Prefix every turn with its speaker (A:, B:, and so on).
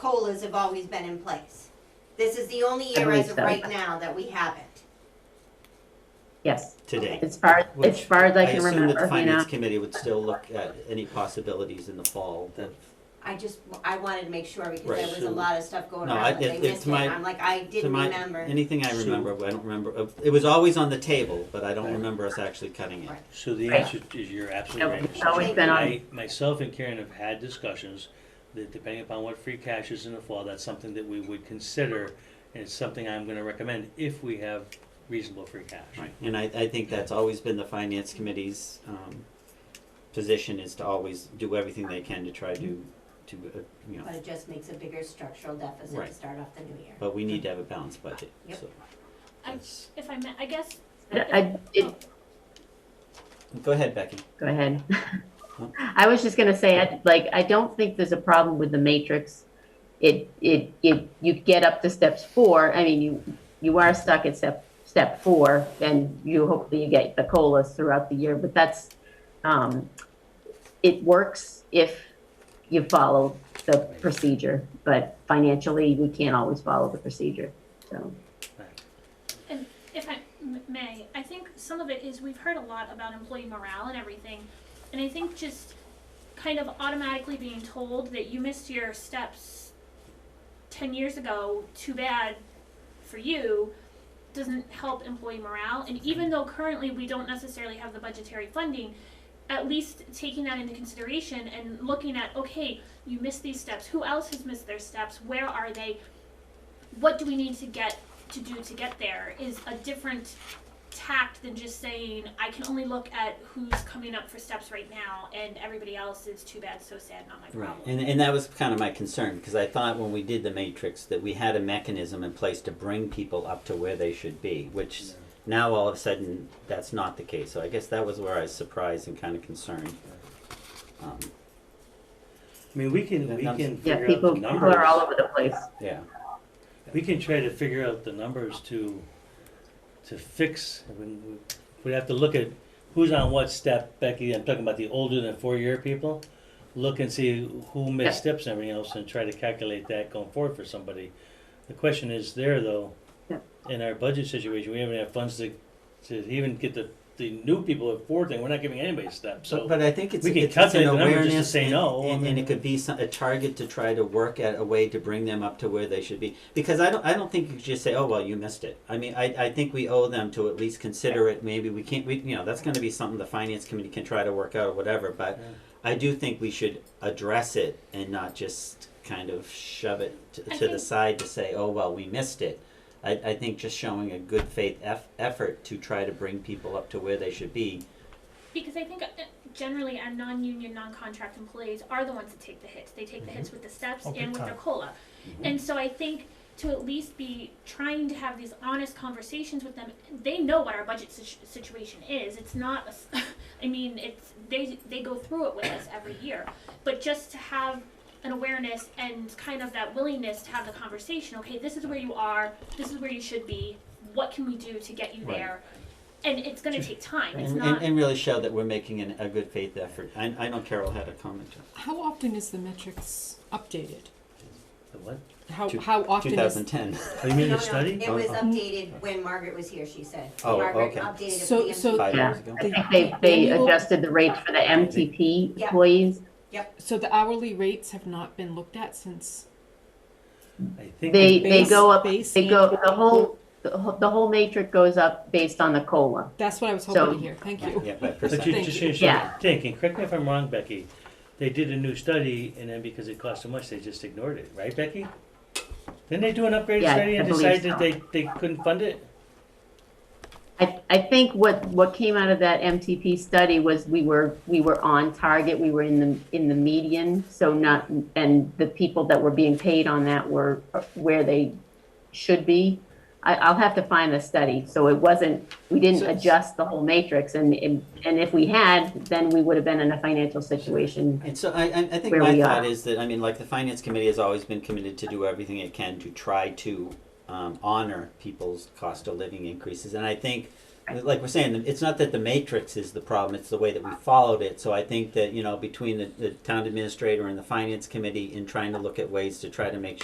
A: COLAs have always been in place. This is the only
B: I
A: year
B: believe
A: as of
B: so.
A: right now that we haven't.
B: Yes,
C: today.
B: as far, as
C: Which
B: far as I can
C: assume
B: remember,
C: that the
B: you know.
C: Finance committee would still look at any possibilities in the fall that,
A: I just, I wanted to make sure because there
C: Right,
A: was a
C: so-
A: lot of stuff going
C: No,
A: around
C: I-
A: that they
C: it-
A: missed
C: it's
A: it.
C: my-
A: I'm like, I
C: to
A: didn't
C: my,
A: remember.
C: anything I
D: Sue.
C: remember, I don't remember, uh, it was always on the table, but I don't
D: Right.
C: remember us actually cutting it.
A: Right.
D: So the
B: Right.
D: answer is you're absolutely
B: No,
D: right.
B: it's always been on-
D: I- Myself and Karen have had discussions that depending upon what free cash is in the fall, that's something that we would consider. And it's something I'm gonna recommend if we have reasonable free cash.
C: Right, and I, I think that's always been the finance committee's, um, position is to always do everything they can to try to, to, uh, you know,
A: But it just makes a bigger structural deficit to
C: Right.
A: start off the new year.
C: but we need to have a balanced budget,
A: Yep.
C: so.
E: I-
C: that's-
E: If I may, I guess.
B: I, it,
C: Go ahead, Becky.
B: go ahead. I was just gonna say, I- like, I don't think there's a problem with the matrix. It, it, it, you get up to steps four, I mean, you, you are stuck at step, step four, and you hopefully you get the COLAs throughout the year, but that's, um, it works if you follow the procedure, but financially, we can't always follow the procedure, so.
E: If I m- may, I think some of it is we've heard a lot about employee morale and everything, and I think just kind of automatically being told that you missed your steps ten years ago, too bad for you, doesn't help employee morale. And even though currently we don't necessarily have the budgetary funding, at least taking that into consideration and looking at okay, you missed these steps. Who else has missed their steps? Where are they? What do we need to get to do to get there is a different tact than just saying I can only look at who's coming up for steps right now and everybody else is too bad, so sad, not my
C: Right,
E: problem.
C: and, and that was kind of my concern, because I thought when we did the matrix that we had a mechanism in place to bring people up to where they should be, which now all of a sudden, that's not the case, so I guess that was where I was surprised and kind of concerned. Um,
D: I mean, we can, we
C: Yeah,
D: can
B: Yeah,
D: figure out
B: people,
D: the
B: people are all
D: numbers.
B: over the place.
C: yeah,
D: We can try to figure out the numbers to, to fix. I mean, we- We'd have to look at who's on what step, Becky, I'm talking about the older than four-year people. Look and see who missed steps and everything else and try to calculate that going forward for somebody. The question is there though,
B: Yeah.
D: in our budget situation, we haven't had funds to, to even get the, the new people at four thing, we're not giving anybody steps,
C: but,
D: so.
C: but I think it's,
D: we can
C: it's it's an
D: calculate the number
C: awareness
D: just to say
C: and-
D: no, I
C: and, and
D: mean-
C: it could be some, a target to try to work at a way to bring them up to where they should be. Because I don't, I don't think you could just say, oh, well, you missed it. I mean, I, I think we owe them to at least consider it, maybe we can't, we, you know, that's gonna be something the finance committee can try to work out or whatever, but
D: Yeah.
C: I do think we should address it and not just kind of shove it to,
E: I
C: to the
E: think-
C: side to say, oh, well, we missed it. I, I think just showing a good faith eff- effort to try to bring people up to where they should be.
E: Because I think uh, generally our non-union, non-contract employees are the ones that take the hits. They
C: Mm-hmm.
E: take the hits with the steps
F: Oh, big
E: and with their
F: time.
E: cola. And so I think to at least be trying to have these honest conversations with them, they know what our budget situ- situation is. It's not. a s I mean, it's they they go through it with us every year, but just to have an awareness and kind of that willingness to have the conversation. Okay, this is where you are. This is where you should be. What can we do to get you
C: Right.
E: there? And it's going to take time. It's
C: And,
E: not.
C: and, and really show that we're making an, a good faith effort. I, I know Carol had a comment.
G: How often is the metrics updated?
D: The what?
G: How,
C: Two-
G: how often is,
C: 2010.
D: Oh, you mean
A: No, no,
D: the study?
A: It was
C: Uh-huh.
A: updated when Margaret was here, she said.
C: Oh,
A: Margaret
C: okay.
A: updated it
G: So-
A: for the
G: so-
A: MTP.
C: Five
B: Yeah.
C: years ago.
B: I think they, they
G: Annual-
B: adjusted the rates for the MTP
A: Yeah.
B: employees.
G: so the hourly rates have not been looked at since,
D: I think
B: They,
D: it-
B: they
G: Base-
B: go up,
G: base
B: they go, the
G: annual-
B: whole, the whole- the whole matrix goes up based on the COLA.
G: that's what I was
B: So-
G: hoping to hear, thank you.
C: Yeah, by
D: But you
C: percent.
G: Thank
D: just
G: you.
D: you should
B: Yeah.
D: think, and correct me if I'm wrong, Becky, they did a new study and then because it cost so much, they just ignored it, right, Becky? Didn't they do an upgraded
B: Yeah,
D: study
B: I
D: and
B: believe
D: decide
B: so.
D: that they, they couldn't fund it?
B: I, I think what, what came out of that MTP study was we were, we were on target, we were in the, in the median, so not, and the people that were being paid on that were where they should be. I, I'll have to find the study, so it wasn't, we didn't
G: So-
B: adjust the whole matrix, and, and and if we had, then we would have been in a financial situation
C: And so I, I, I think
B: Where
C: my
B: we
C: thought
B: are.
C: is that, I mean, like the finance committee has always been committed to do everything it can to try to um, honor people's cost of living increases. And I think, like we're saying, it's not that the matrix is the problem, it's the way that we followed it. So I think that, you know, between the, the town administrator and the finance committee in trying to look at ways to try to make